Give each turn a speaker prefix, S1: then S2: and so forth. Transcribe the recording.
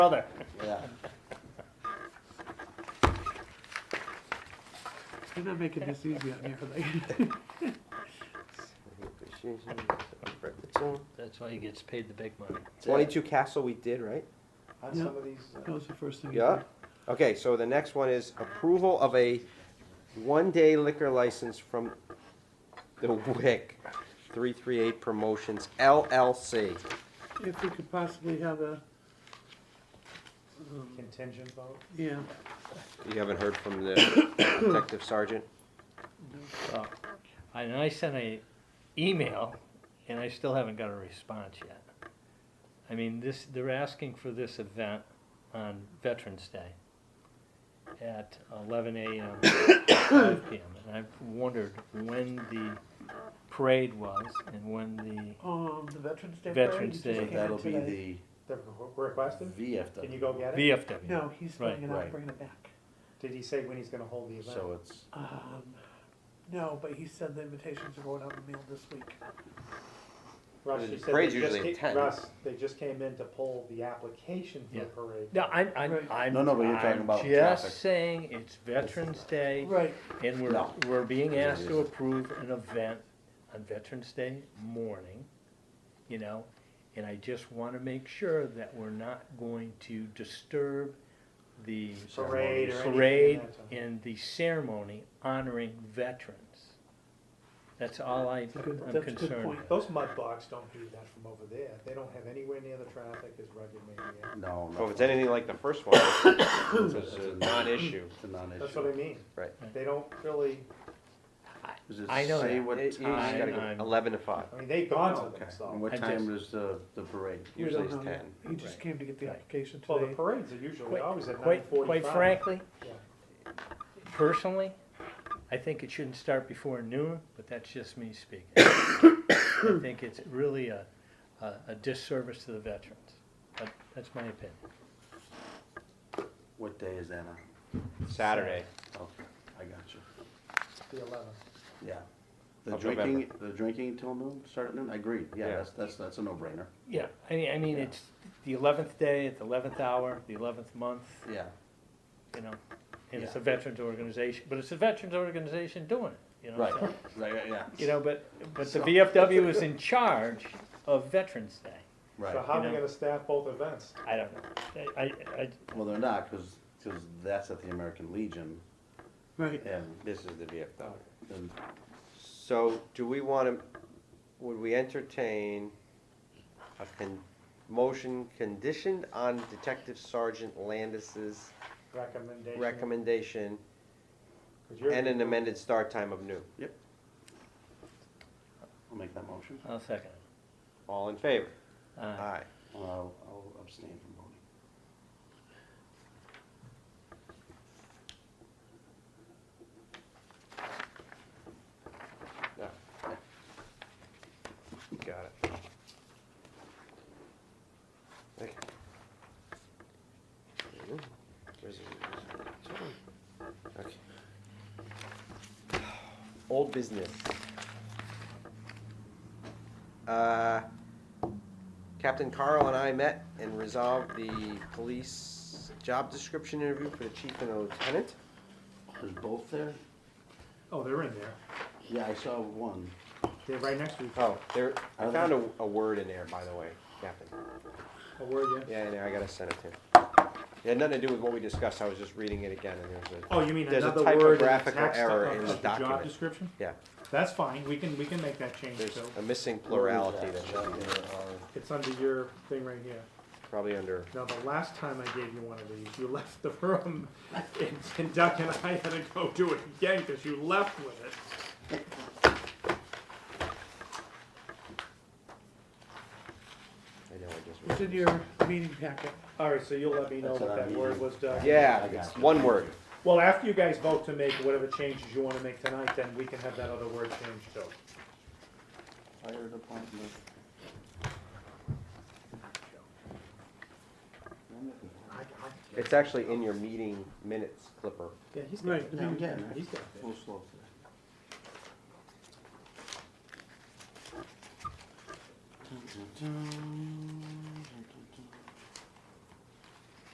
S1: brother.
S2: Yeah.
S3: They're not making this easy out here, are they?
S2: Appreciation, Richardson.
S4: That's why he gets paid the big money.
S2: Twenty-two Castle we did, right?
S5: On
S3: Yeah.
S5: some of these, uh,
S3: That was the first thing.
S2: Yeah. Okay, so the next one is approval of a one-day liquor license from the WIC, three-three-eight Promotions LLC.
S3: If we could possibly have a, um,
S5: contingent vote.
S3: yeah,
S2: You haven't heard from the detective sergeant?
S4: So, I- and I sent a email, and I still haven't got a response yet. I mean, this, they're asking for this event on Veterans Day at eleven AM, five PM. And I've wondered when the parade was and when the,
S3: um,
S5: The Veterans Day.
S4: Veterans
S5: parade, you
S4: Day.
S5: just
S6: That'll
S5: came
S6: be
S5: in
S6: the
S5: today. The Requested?
S6: VFW.
S5: Can you go get it?
S4: VFW.
S3: no, he's
S4: Right,
S3: bringing it out,
S6: right.
S3: bringing it back.
S5: Did he say when he's gonna hold the event?
S6: So it's,
S3: Um, no, but he said the invitations are going out in the mail this week.
S5: Russ,
S2: The
S5: you said they
S2: parade's
S5: just
S2: usually
S5: ca-
S2: at 10.
S5: Russ, they just came in to pull the application for the
S4: Yeah.
S5: parade.
S4: No, I, I,
S3: Right.
S4: I'm.
S6: No, no, but you're talking
S4: I'm
S6: about traffic.
S4: Just saying, it's Veterans Day.
S3: Right,
S4: And we're,
S6: No.
S4: we're being
S6: Yeah, it
S4: asked to
S6: isn't.
S4: approve an event on Veterans Day morning, you know? And I just wanna make sure that we're not going to disturb the
S5: Parade or anything.
S4: parade
S5: of that sort.
S4: and the ceremony honoring veterans. That's all I,
S3: a good-
S4: I'm
S3: that's a good
S4: concerned
S3: point.
S4: with.
S5: Those mud blocks don't do that from over there. They don't have anywhere near the traffic as rugged maybe.
S6: no.
S2: Well, if it's
S6: nothing.
S2: anything like the first one, it's
S6: It's
S2: a
S6: a-
S2: non-issue.
S6: It's a non-issue.
S5: That's what I mean.
S2: Right.
S5: They don't really,
S6: Does it
S4: I know
S6: say
S4: that.
S6: what
S2: It- you just
S4: time?
S2: gotta go
S4: I'm-
S2: Eleven to five,
S5: I mean, they've gone
S6: Oh,
S5: to
S6: Okay,
S5: them,
S6: and
S5: so.
S6: what
S4: I
S6: time
S4: just-
S6: is the, the parade?
S3: We
S2: usually it's
S3: don't know.
S2: ten.
S3: he just
S4: Right.
S3: came to get the
S4: Right.
S3: application
S5: Well, the
S3: today.
S5: parades are usually
S4: Quite-
S5: always at nine
S4: Quite,
S5: forty-five.
S4: quite frankly,
S5: Yeah.
S4: personally, I think it shouldn't start before noon, but that's just me speaking. I think it's really a, a, a disservice to the veterans. But that's my opinion.
S6: What day is that on?
S2: Saturday.
S6: Okay, I got you.
S5: The eleventh.
S6: Yeah. The
S2: Of
S6: drinking, the drinking till noon, start at noon, I agree,
S2: Yeah.
S6: yeah, that's, that's, that's a no-brainer,
S4: Yeah, I mean, I mean,
S6: Yeah.
S4: it's the eleventh day, at the eleventh hour, the eleventh month,
S6: yeah.
S4: you know, and it's a
S6: Yeah.
S4: veterans organization, but it's a veterans organization doing it, you know?
S6: Right,
S4: so-
S6: right, yeah, yeah,
S4: You know, but, but the
S6: So-
S4: VFW is in charge of Veterans Day.
S5: So
S6: right.
S5: how are we
S4: You know.
S5: gonna staff both events?
S4: I don't know. I, I, I,
S6: Well, they're not, because, that's at the American Legion,
S3: Right,
S6: and,
S2: This is the VFW.
S6: and
S2: So do we want to, would we entertain a con, motion conditioned on Detective Sergeant Landis's
S5: Recommendation?
S2: recommendation
S5: 'Cause you're-
S2: and an amended start time of noon?
S6: I'll make that motion.
S4: I'll second it.
S2: All in favor?
S4: Uh,
S2: Aye.
S6: I'll, I'll abstain from voting.
S2: No. Got it. Okay. Where's it? Where's it? Okay. Old business. Uh, Captain Carl and I met and resolved the police job description interview for the chief and the lieutenant.
S6: Is both there?
S5: Oh, they're in there.
S6: Yeah, I saw one.
S5: They're right next to each other.
S2: Oh, there, I
S6: Are
S2: found a, a word in there, by the way, Captain.
S5: Oh, where are you?
S2: Yeah, I know, I gotta send it to him. It had nothing to do with what we discussed, I was just reading it again, and there's a,
S5: Oh, you mean
S2: There's a
S5: another word in the
S2: typographical
S5: text
S2: error
S5: of-
S2: in
S5: of
S2: the document.
S5: Job description?
S2: yeah,
S5: That's fine, we can, we can make that change
S2: there's
S5: too.
S2: a missing plurality
S6: Where is
S2: that
S6: that?
S2: should be
S6: Is that there? Or-
S5: It's under your thing right here.
S2: probably under,
S5: Now, the last time I gave you one of these, you left the room and, and Doug and I had to go do it again because you left with it.
S2: I know, I just.
S3: it's in your meeting packet.
S5: All right, so you'll let me know
S6: That's
S5: what
S6: what
S5: that
S6: I'm
S5: word
S6: using.
S5: was, Doug?
S2: Yeah,
S6: I got
S2: it's
S6: you.
S2: one word,
S5: Well, after you guys vote to make whatever changes you want to make tonight, then we can have that other word changed too.
S6: Fire department.
S2: it's actually in your meeting minutes clipper.
S5: Yeah, he's
S3: got it. Right.
S6: Yeah, I'm getting it.
S5: He's got it.
S6: A little slow today.